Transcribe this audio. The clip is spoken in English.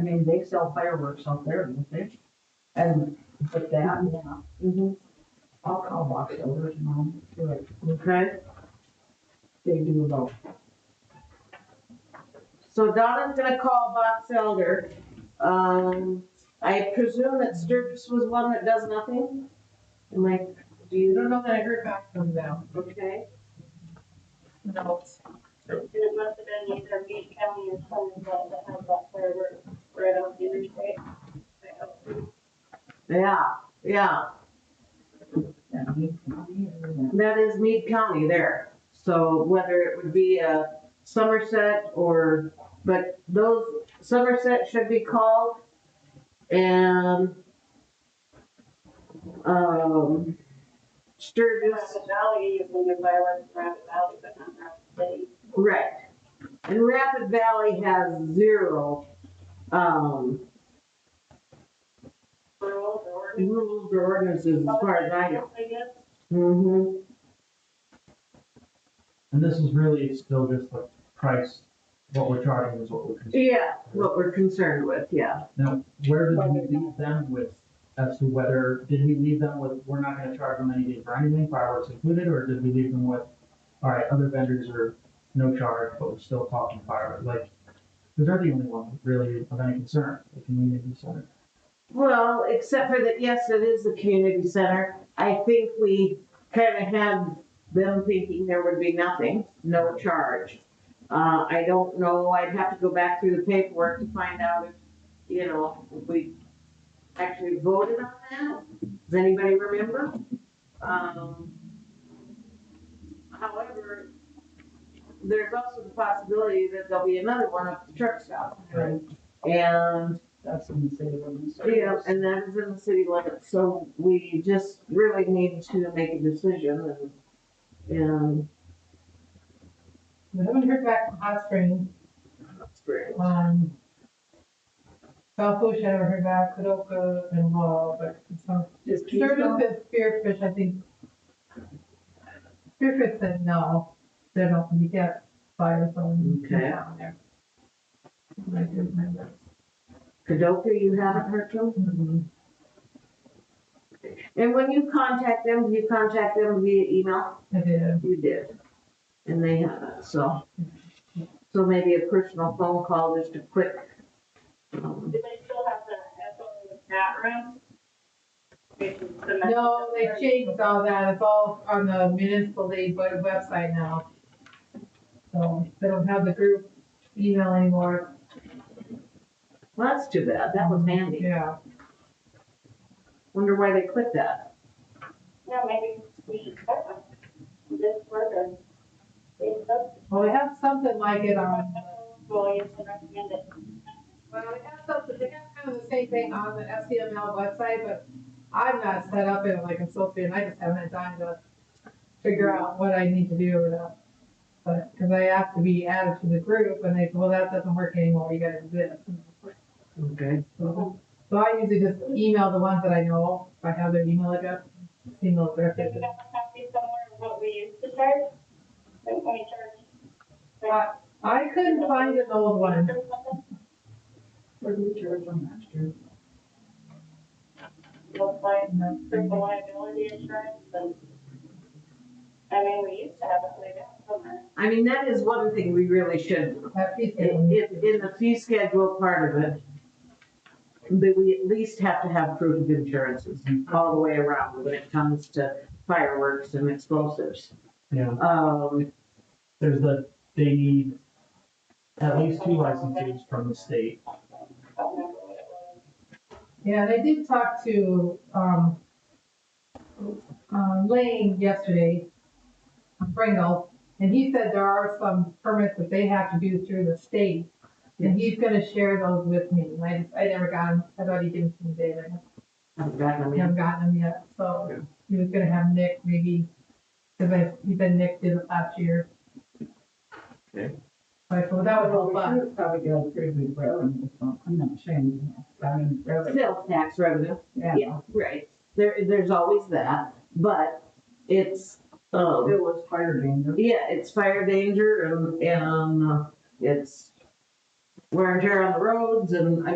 mean, they sell fireworks out there, don't they? And with that, yeah, Mhm. I'll call box elders and I'll do it. Okay, They do about, so Donna's gonna call Box Elder. Um, I presume that Sturgis was one that does nothing? Am I, do You you, don't know that I heard back from them. okay? No. And it must have been either Meade County or Sunnyvale that had that fireworks right on the interstate. I hope. Yeah, yeah, that means money or that. that is Meade County there. So whether it would be a Somerset or, but those, Somerset should be called. And, um, Sturgis. Rapid Valley, you can do fireworks in Rapid Valley, but not Rapid City. Right. And Rapid Valley has zero, um, Rural or. rules or ordinances as far as I know. I guess. Mm-hmm. And this is really still just the price, what we're charging is what we're considering. Yeah, what we're concerned with, yeah. Now, where did we leave them with, as to whether, did we leave them with, we're not gonna charge them anything for anything, fireworks included, or did we leave them with, all right, other vendors are no charge, but we're still talking fireworks, like, because they're the only one really of any concern, the community center. Well, except for that, yes, it is the community center. I think we kind of had them thinking there would be nothing, no charge. Uh, I don't know, I'd have to go back through the paperwork to find out if, you know, we actually voted on that. Does anybody remember? Um, however, there's also the possibility that there'll be another one up at the truck stop. Right. And That's in the city limits. yeah, and that is in the city limits, so we just really need to make a decision and, and. We haven't heard back from Hot Springs. Um, South Bush, I never heard back, Kadoka and Wall, but it's not. Just keep Sturgis going. and Spearfish, I think. Spearfish said no, they don't, you can't fire someone Okay. down there. I do remember. Kadoka, you haven't heard from? Mhm. And when you contact them, do you contact them via email? I did. You did. And they haven't, so. So maybe a personal phone call, just a quick. um, Do they still have the echo in the chat room? No, they changed all that, it's all on the municipal league web- website now. So they don't have the group email anymore. Well, that's too bad, that was handy. Yeah. Wonder why they quit that. Yeah, maybe we, uh, this further. They said, Well, they have something like it on, well, you can recommend it. well, they have something, they have kind of the same thing on the SCML website, but I'm not set up in it like I'm supposed to, be, and I just haven't had time to figure out what I need to do with that. But, because I have to be added to the group, and they said, well, that doesn't work anymore, you gotta do this. Okay. So so I usually just email the ones that I know, if I have their email address, email their Do you have a copy somewhere of what we used to charge? Like, when we charged? Uh, I couldn't find an old one. What did we charge on last year? Looks like the liability insurance and, I mean, we used to have it laid out somewhere. I mean, that is one thing we really should That piece of In, in it. in the fee schedule part of it, that we at least have to have proof of insurances all the way around when it comes to fireworks and explosives. Yeah. Um, There's the, they need at least two licenses from the state. I don't remember what it was. Yeah, and I did talk to, um, uh, Lane yesterday, Pringle, and he said there are some permits that they have to do through the state. And he's gonna share those with me. And I just, I never got them. I thought he did them today, but I've gotten I them haven't gotten them yet. Yeah. So he was gonna have Nick maybe, because I, he said Nick did it last year. Okay. Like, well, that was all We fun. should've Probably got a pretty good revenue, so um, I'm not saying, I mean, in. revenue, Sales tax revenue, yeah. yeah, right. There, there's always that, but it's, um, It was fire danger. yeah, it's fire danger and, and uh, it's wear and tear on the roads and, I